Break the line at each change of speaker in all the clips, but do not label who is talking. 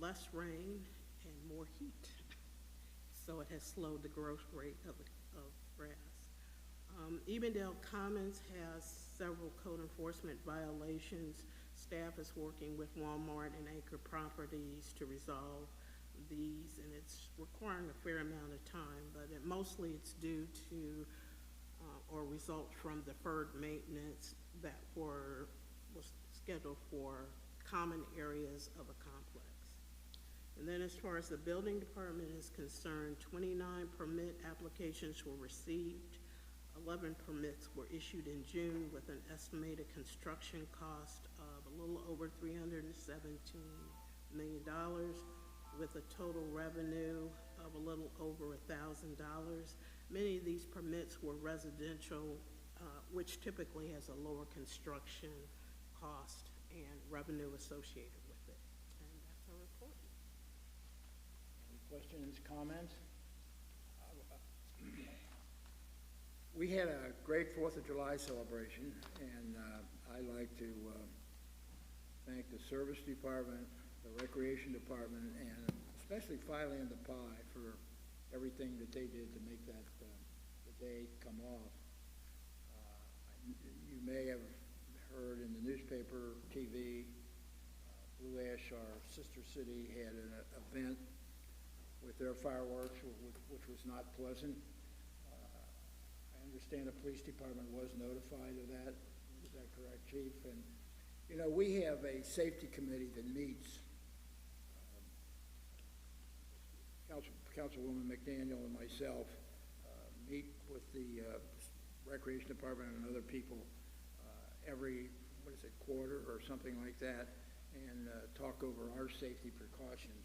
less rain and more heat. So it has slowed the growth rate of, the- of grass. Um, Evendale Commons has several code enforcement violations. Staff is working with Walmart and Acre Properties to resolve these, and it's requiring a fair amount of time, but it, mostly it's due to, uh, or result from deferred maintenance that were, was scheduled for common areas of a complex. And then as far as the building department is concerned, twenty-nine permit applications were received. Eleven permits were issued in June with an estimated construction cost of a little over three hundred and seventeen million dollars with a total revenue of a little over a thousand dollars. Many of these permits were residential, uh, which typically has a lower construction cost and revenue associated with it. And that's our report.
Any questions, comments? We had a great Fourth of July celebration, and uh, I'd like to uh, thank the Service Department, the Recreation Department, and especially Filey and the Pie for everything that they did to make that, uh, the day come off. Uh, You may have heard in the newspaper, TV, uh, Blue Ash, our sister city, had an event with their fireworks, wh- wh- which was not pleasant. I understand the police department was notified of that. Is that correct, chief? And, you know, we have a safety committee that meets. um, Council, Councilwoman McDaniel and myself, uh, meet with the, uh, recreation department and other people, uh, every, what is it, quarter or something like that, and, uh, talk over our safety precautions.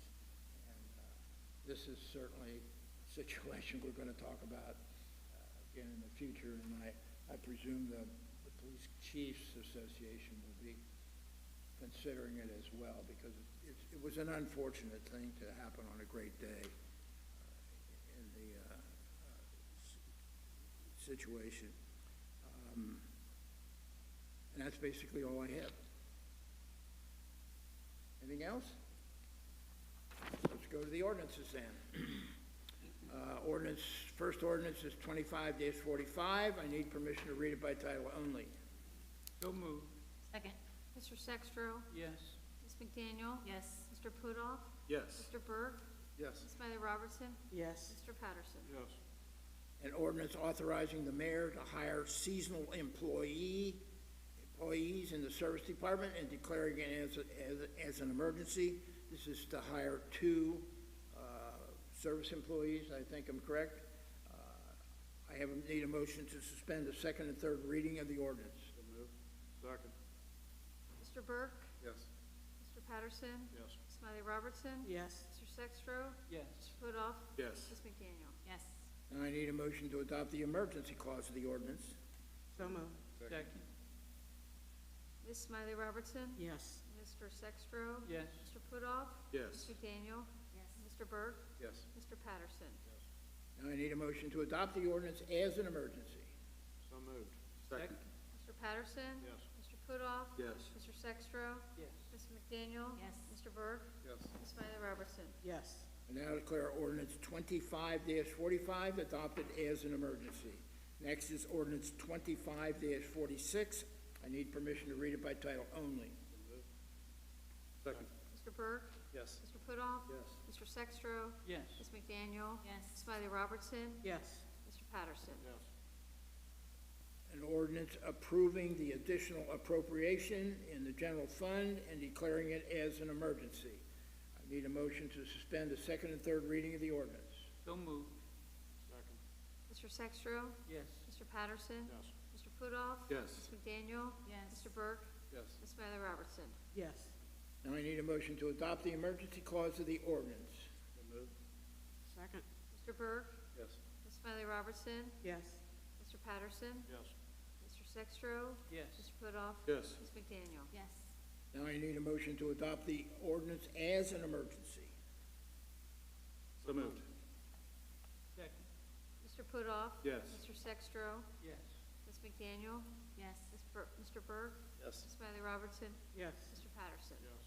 And, uh, This is certainly a situation we're gonna talk about, uh, again in the future, and I, I presume the, the Police Chiefs Association will be considering it as well, because it, it was an unfortunate thing to happen on a great day uh, in the, uh, uh, s- situation. Um, And that's basically all I have. Anything else? Let's go to the ordinances then. Uh, ordinance, first ordinance is twenty-five forty-five. I need permission to read it by title only.
So moved.
Second.
Mr. Sextro.
Yes.
Ms. McDaniel.
Yes.
Mr. Pudoff.
Yes.
Mr. Burke.
Yes.
Ms. Miley Robertson.
Yes,
Mr. Patterson.
Yes.
An ordinance authorizing the mayor to hire seasonal employee, employees in the service department and declaring it as, a- as, as an emergency. This is to hire two, uh, service employees, I think I'm correct. Uh, I have, a- need a motion to suspend the second and third reading of the ordinance.
So moved. Second.
Mr. Burke.
Yes.
Mr. Patterson.
Yes.
Ms. Miley Robertson.
yes,
Mr. Sextro.
Yes.
Mr. Pudoff.
Yes.
Ms. McDaniel.
Yes.
And I need a motion to adopt the emergency clause of the ordinance.
so moved,
Second.
Ms. Miley Robertson.
yes,
Mr. Sextro.
Yes.
Mr. Pudoff.
Yes.
Ms. McDaniel.
Yes.
Mr. Burke.
Yes.
Mr. Patterson.
Now I need a motion to adopt the ordinance as an emergency.
So moved. Second.
Mr. Patterson.
Yes.
Mr. Pudoff.
Yes.
Mr. Sextro.
Yes.
Ms. McDaniel.
Yes.
Mr. Burke.
Yes.
Ms. Miley Robertson.
yes,
I now declare ordinance twenty-five forty-five adopted as an emergency. Next is ordinance twenty-five forty-six. I need permission to read it by title only.
Second.
Mr. Burke.
Yes.
Mr. Pudoff.
Yes.
Mr. Sextro.
Yes.
Ms. McDaniel.
Yes.
Ms. Miley Robertson.
yes,
Mr. Patterson.
Yes.
An ordinance approving the additional appropriation in the general fund and declaring it as an emergency. I need a motion to suspend the second and third reading of the ordinance.
So moved. Second.
Mr. Sextro.
Yes.
Mr. Patterson.
Yes.
Mr. Pudoff.
Yes.
Ms. McDaniel.
Yes.
Mr. Burke.
Yes.
Ms. Miley Robertson.
yes,
Now I need a motion to adopt the emergency clause of the ordinance.
So moved.
second,
Mr. Burke.
Yes.
Ms. Miley Robertson.
yes,
Mr. Patterson.
Yes.
Mr. Sextro.
Yes.
Mr. Pudoff.
Yes.
Ms. McDaniel.
Yes.
Now I need a motion to adopt the ordinance as an emergency.
So moved. Second.
Mr. Pudoff.
Yes.
Mr. Sextro.
Yes.
Ms. McDaniel.
Yes.
Ms. Bur- Mr. Burke.
Yes.
Ms. Miley Robertson.
yes,
Mr. Patterson.
Yes.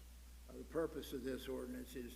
Uh, The purpose of this ordinance is